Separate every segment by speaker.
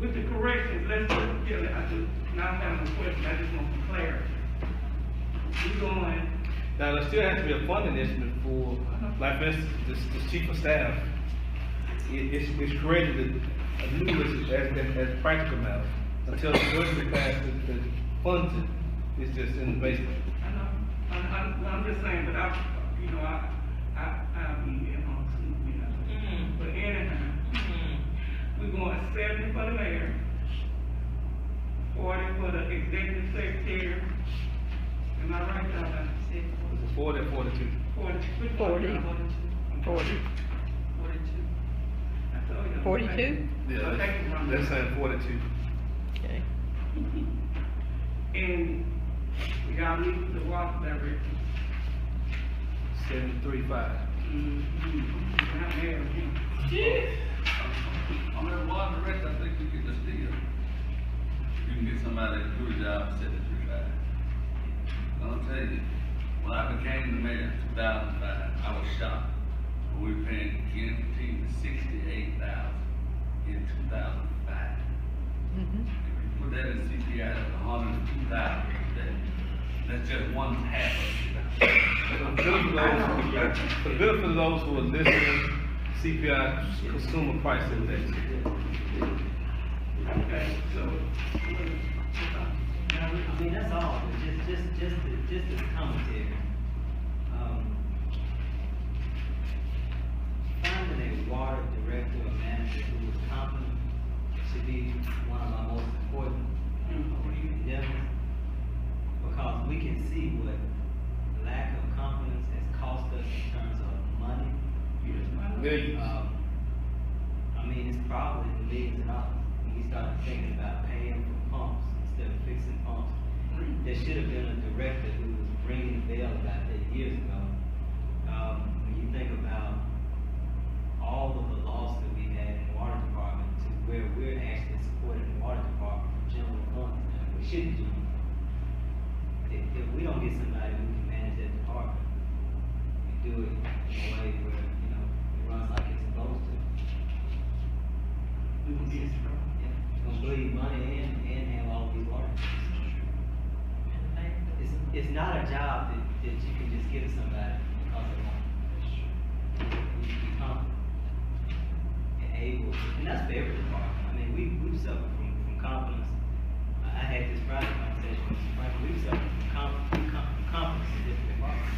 Speaker 1: with the corrections, let's, just- yeah, I just, not having a question, I just want some clarity. We going,
Speaker 2: Now, there still has to be a funding estimate for, like, for instance, this, this chief of staff, it, it's, it's created a, a new list as, as, as practical matter, until the budget passed, the, the funds it, it's just in the basement.
Speaker 1: I know, I'm, I'm, I'm just saying, but I, you know, I, I, I'll be at home too, you know.
Speaker 3: Mm,
Speaker 1: But anyhow,
Speaker 3: mm.
Speaker 1: we going seventy for the mayor, forty for the executive secretary. Am I right, Donna?
Speaker 2: It's a forty or forty-two.
Speaker 1: Forty. which one?
Speaker 4: Forty.
Speaker 1: I'm sorry.
Speaker 4: Forty.
Speaker 3: Forty-two.
Speaker 1: I told you.
Speaker 4: Forty-two?
Speaker 1: I think it's
Speaker 2: Yeah,
Speaker 1: wrong.
Speaker 2: that's saying forty-two.
Speaker 4: Okay.
Speaker 1: And we gotta leave the water director.
Speaker 2: Seventy-three five.
Speaker 1: Mhm. Not mad at him.
Speaker 5: On that water direct, I think we could just deal. You can get somebody to do a job, set it through that. I'll tell you, when I became the mayor in two thousand five, I was shocked. We were paying guaranteed sixty-eight thousand in two thousand five. If you put that in CPI, that's a hundred and two thousand today. That's just one half of it.
Speaker 2: For the benefit of those- for the benefit of those who are listening, CPI Consumer Price Index.
Speaker 1: Okay, so.
Speaker 6: Now, I mean, that's all, but just, just, just, the- just this commentary. Um, Finding a water director or manager who is competent should be one of my most important uh, endeavors. Because we can see what lack of competence has cost us in terms of money.
Speaker 2: Millions.
Speaker 6: Um, I mean, it's probably in the millions of dollars. When we started thinking about paying for pumps instead of fixing pumps, there should have been a director who was ringing the bell about that years ago. Um, when you think about all of the loss that we had in the water department to where we're actually supporting the water department from general funds, and we shouldn't do anything. If, if we don't get somebody who can manage that department, and do it in a way where, you know, it runs like it's supposed to,
Speaker 1: We will be in trouble.
Speaker 6: yeah, it's gonna bleed money in and have all these water.
Speaker 3: And they-
Speaker 6: It's, it's not a job that, that you can just give to somebody because of money. You should be confident and able, to- and that's for every department. I mean, we, we've suffered from, from confidence. I, I had this Friday conversation with Mr. Franklin, we've suffered from com, com, confidence in different departments.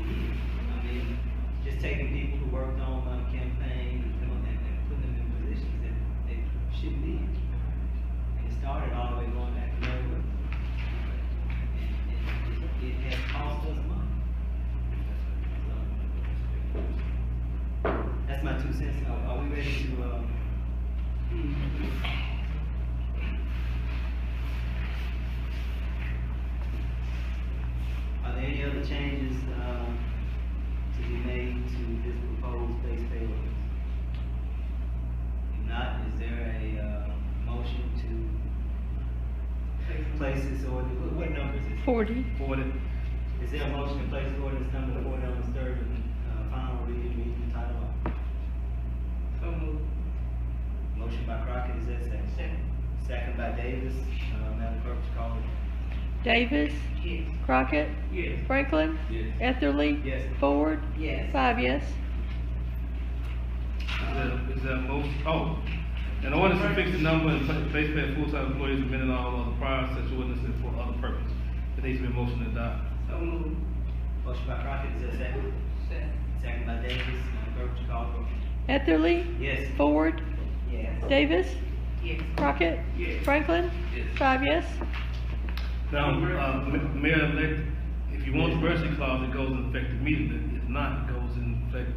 Speaker 6: I mean, just taking people who worked on a campaign and, doing that and putting them in positions that they shouldn't be in. And it started all the way going back to Mary Wood. And, and it, it has cost us money. So, That's my two cents. Are, are we ready to, um, are there any other changes, um, to be made to this proposed base pay ordinance? If not, is there a, uh, motion to place this ordinance, what, what number is this?
Speaker 4: Forty.
Speaker 2: Forty.
Speaker 6: Is there a motion to place ordinance number forty on its third and, uh, final reading, reading the title only?
Speaker 1: So moved.
Speaker 6: Motion by Crockett, is that second?
Speaker 3: Second.
Speaker 6: Second by Davis, uh, Madam Clerk, would you call it?
Speaker 4: Davis,
Speaker 3: Yes.
Speaker 4: Crockett,
Speaker 1: Yes.
Speaker 4: Franklin,
Speaker 5: Yes.
Speaker 4: Etherly.
Speaker 6: Yes.
Speaker 4: Ford.
Speaker 6: Yes.
Speaker 4: Five yes.
Speaker 2: Is that, is that most, oh, an ordinance to fix the number and pla- base pay of full-time employees amending all other prior such ordinances for other purposes. It needs to be a motion to adopt.
Speaker 1: So moved.
Speaker 6: Motion by Crockett, is there second?
Speaker 3: Second.
Speaker 6: Second by Davis, Madam Clerk, would you call it?
Speaker 4: Etherly,
Speaker 6: Yes.
Speaker 4: Ford,
Speaker 6: Yes.
Speaker 4: Davis,
Speaker 3: Yes.
Speaker 4: Crockett,
Speaker 1: Yes.
Speaker 4: Franklin.
Speaker 5: Yes.
Speaker 4: Five yes.
Speaker 2: Now, uh, Ma- Mayor-elect, if you want the mercy clause, it goes in effect immediately. If not, it goes in effect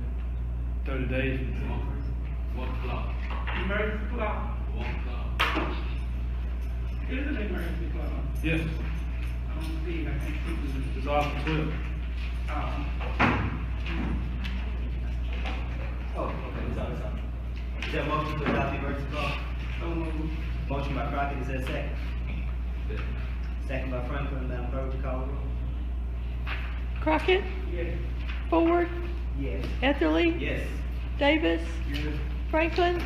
Speaker 2: thirty days from today.
Speaker 5: One clock,
Speaker 1: Emergency clause,
Speaker 5: one clock.
Speaker 1: is an emergency clause.
Speaker 2: Yes,
Speaker 1: I don't see, it. I can't see it.
Speaker 2: it's Article twelve.
Speaker 1: Um,
Speaker 6: Oh, okay, it's on, it's on. Is there a motion to adopt the emergency clause?
Speaker 1: so moved.
Speaker 6: Motion by Crockett, is there a second? Second by Franklin, um, Madam Clerk, would you call the roll?
Speaker 4: Crockett,
Speaker 1: Yes.
Speaker 4: Ford,
Speaker 6: Yes.
Speaker 4: Etherly,
Speaker 6: Yes.
Speaker 4: Davis, Franklin.